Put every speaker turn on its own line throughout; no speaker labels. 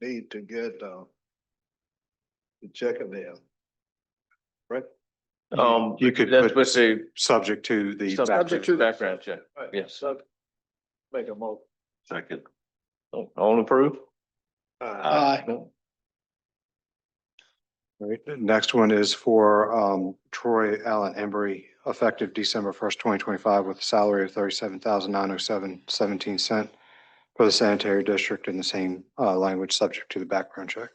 need to get, uh, to check it in.
Um, you could
That's
put
what's the.
subject to the.
Subject to background check.
Right,
Yes.
so Make a mo.
Second.
Oh, All approved?
Uh,
No.
Right. Next one is for um Troy Allen Embry, effective December first, twenty twenty-five, with a salary of thirty-seven thousand nine hundred seven seventeen cent for the sanitary district in the same uh language, subject to the background check.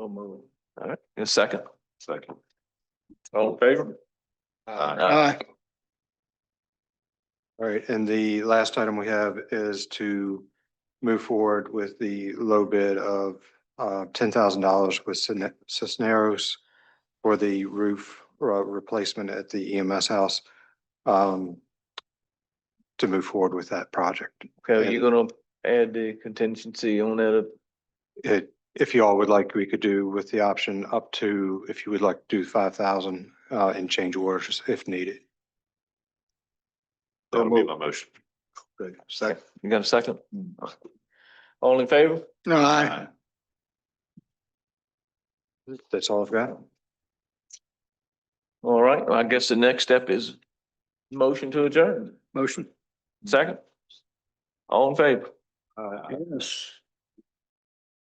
so move.
All right, in a second.
Second.
All in favor?
Aye. All right, and the last item we have is to move forward with the low bid of uh ten thousand dollars with Cisne- Cisneros for the roof uh, replacement at the EMS house. Um, to move forward with that project.
Okay, you're gonna add the contingency on that. uh,
It, if you all would like, we could do with the option up to, if you would like, do five thousand uh in change orders if needed.
That'll be my motion.
Good, second.
You got a second? All in favor?
Aye.
Uh, That's all I've got.
All right, well, I guess the next step is motion to adjourn.
Motion.
Uh,
Second? All in favor?
Yes.